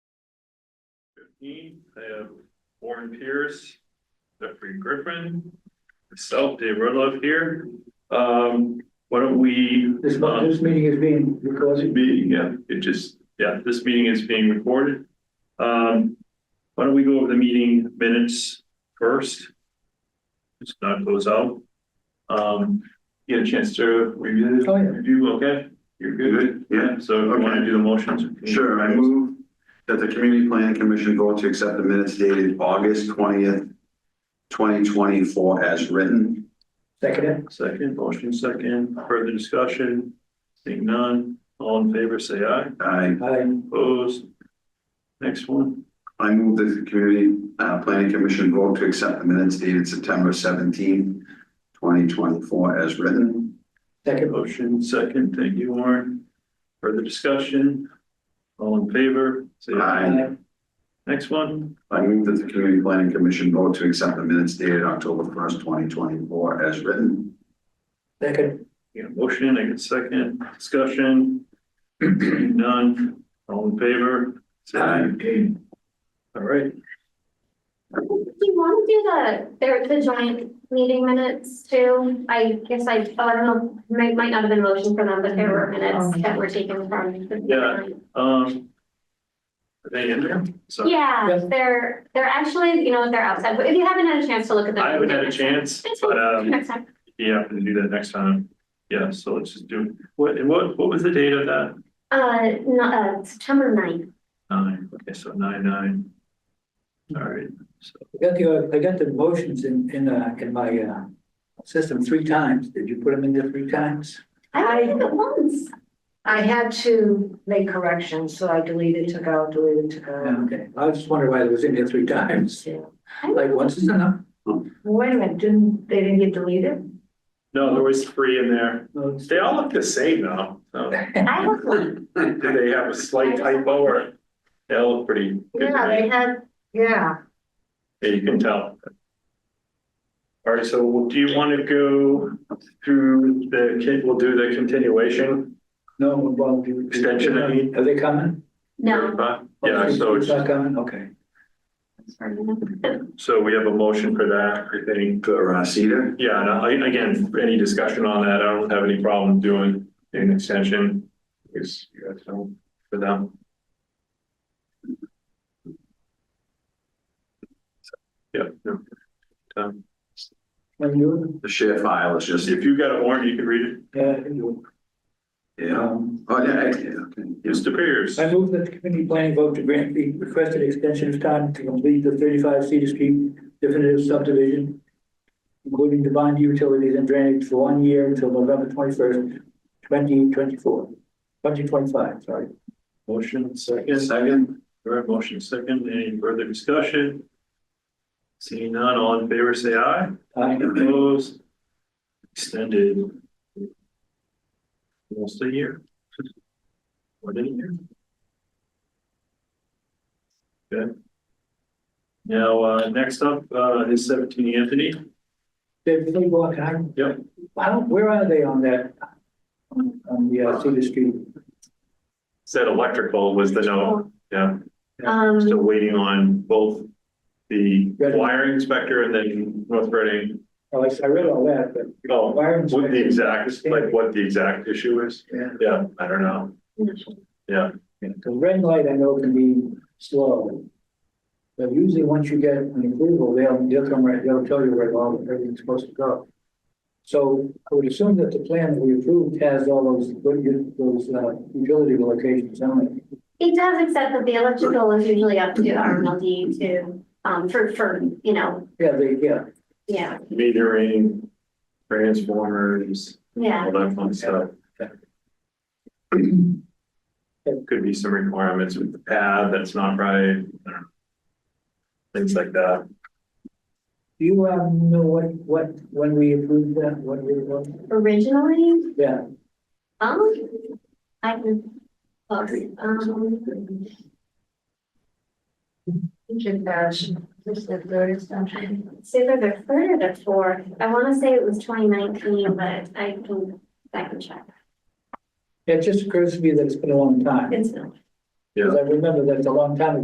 fifteen, I have Warren Pierce, Jeffrey Griffin, myself, Dave Rudloff here. Um, why don't we? This, um, this meeting is being recorded. Be, yeah, it just, yeah, this meeting is being recorded. Um, why don't we go over the meeting minutes first? Just not close out. Um, you had a chance to review, Oh, yeah. review, okay? You're good? Good, yeah. So if you want to do the motions? Sure, I move that the Community Planning Commission vote to accept the minutes dated August twentieth, twenty twenty-four as written. Second it. Second, motion second, further discussion, seeing none, all in favor, say aye, I, Aye. opposed. Next one, I move that the Community, uh, Planning Commission vote to accept the minutes dated September seventeenth, twenty twenty-four as written. Second. motion second, thank you, Warren. Further discussion, all in favor, say aye. Aye. Uh, Next one, I move that the Community Planning Commission vote to accept the minutes dated October first, twenty twenty-four as written. Second. you know, motion, I get second, discussion. Seeing None, all in favor, say aye. All right, Do you want to do the, there, the joint meeting minutes too? I guess I, oh, I don't know, might, might not have been motion for them, but there were minutes that were taken from. the- Yeah. um. Are they in there? So Yeah, Yeah. they're, they're actually, you know, they're outside, but if you haven't had a chance to look at them. I haven't had a chance, but, um. Next time, Yeah, we can do that next time. Yeah, so let's just do, what, and what, what was the date of that? uh, no, uh, September ninth, Nine, okay, so nine, nine. All right, so, I got the, I got the motions in, in, uh, in my, uh, system three times. Did you put them in there three times? I only did it once. I had to make corrections, so I deleted, took out, deleted, took Yeah, out. Okay, I just wondered why it was in there three times. Yeah. Like, once is enough. Wait a minute, didn't, they didn't get deleted? no, there was three in there. No, it's- They all look the same though. So I have one, do they have a slight typo or? They all look pretty good yeah, to me. they had, Yeah, Yeah, you can tell. All right, so do you want to go through the, con- we'll do the continuation? No, well. do- Extension, I mean. Are they coming? no. Yeah, so It's it's. not coming, okay. Sorry, no. So we have a motion for that, I think. For uh, Cedar, Yeah, and I, again, any discussion on that, I don't have any problem doing an extension. Is, you guys know, for them. Yeah. no. Um, When you, the share file is just, If you got a warrant, you can read it. yeah, you, yeah. um, Oh, yeah, I- yeah, okay. Mr. Pierce, I move that the committee planning vote to grant the requested extension of time to complete the thirty-five Cedar Street definitive subdivision, including the bond utilities and drainage for one year until November twenty-first, twenty twenty-four, twenty twenty-five, sorry. motion second, Second, All right, motion second, any further discussion? Seeing none, all in favor, say aye. I, Opposed? Extended. Almost a year. What did year? Good. Now, uh, next up, uh, is seventeen Anthony. David, can you walk, can I? Yep. How, where are they on that? on- On the uh, Cedar Street? Said electrical was the note, yeah, Um, still waiting on both the wiring inspector and then North Reading. Oh, I I read all that, but. Oh, what the exact, like what the exact issue is, Yeah. yeah, I don't know. The red light I know can be slow. But usually once you get an approval, they'll, they'll come right, they'll tell you where all, everything's supposed to go. So I would assume that the plan that we approved has all those, those uh, utility locations on it. It does, except that the electrical is usually up to RMLD to, um, for, for, you know, Yeah, they, yeah, yeah, metering, transformers, yeah. all that fun stuff. Could be some requirements with the pad that's not right, I don't know. things like that. do you, um, know what, what, when we approved that, what we were, Originally, yeah, um, I can, um, should, uh, should- this is the third extension. it's either the third or the fourth. I want to say it was twenty nineteen, but I can, I can check. it just occurs to me that it's been a long time. It's not. Because I remember that it's a long time ago.